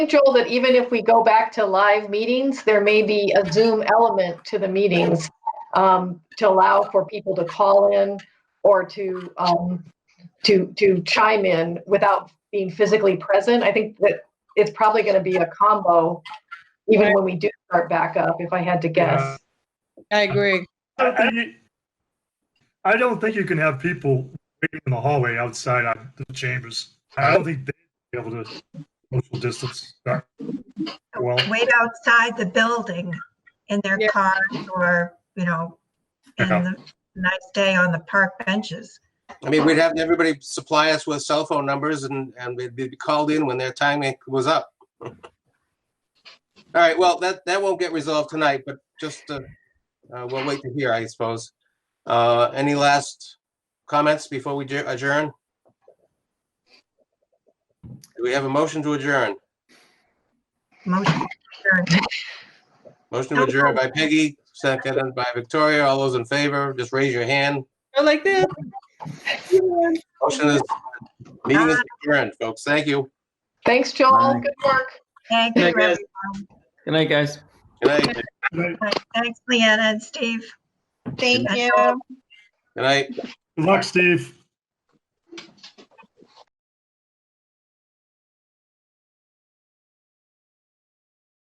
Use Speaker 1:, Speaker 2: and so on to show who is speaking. Speaker 1: Joel, that even if we go back to live meetings, there may be a Zoom element to the meetings um, to allow for people to call in or to, um, to, to chime in without being physically present. I think that it's probably going to be a combo, even when we do start back up, if I had to guess.
Speaker 2: I agree.
Speaker 3: I- I I don't think you can have people waiting in the hallway outside of the chambers. I don't think they'd be able to social distance. that Well,
Speaker 4: wait outside the building in their
Speaker 2: Yeah.
Speaker 4: cars or, you know, in
Speaker 3: Yeah.
Speaker 4: the nice day on the park benches.
Speaker 5: I mean, we'd have everybody supply us with cell phone numbers and, and we'd be called in when their time was up. All right, well, that, that won't get resolved tonight, but just, uh, uh, we'll wait to hear, I suppose. Uh, any last comments before we adjour- adjourn? Do we have a motion to adjourn?
Speaker 4: Motion adjourned.
Speaker 5: Motion to adjourn by Peggy, seconded by Victoria. All those in favor, just raise your hand.
Speaker 2: I like this.
Speaker 5: Motion is, meeting is adjourned, folks. Thank you.
Speaker 1: Thanks, Joel. Good work.
Speaker 4: Thank you,
Speaker 6: Thank you,
Speaker 4: everyone.
Speaker 6: guys. Good night, guys.
Speaker 5: Good night.
Speaker 3: good
Speaker 4: Thanks, Leanna and Steve.
Speaker 2: Thank
Speaker 4: That's
Speaker 2: you.
Speaker 4: all.
Speaker 5: Good night.
Speaker 3: luck, Steve.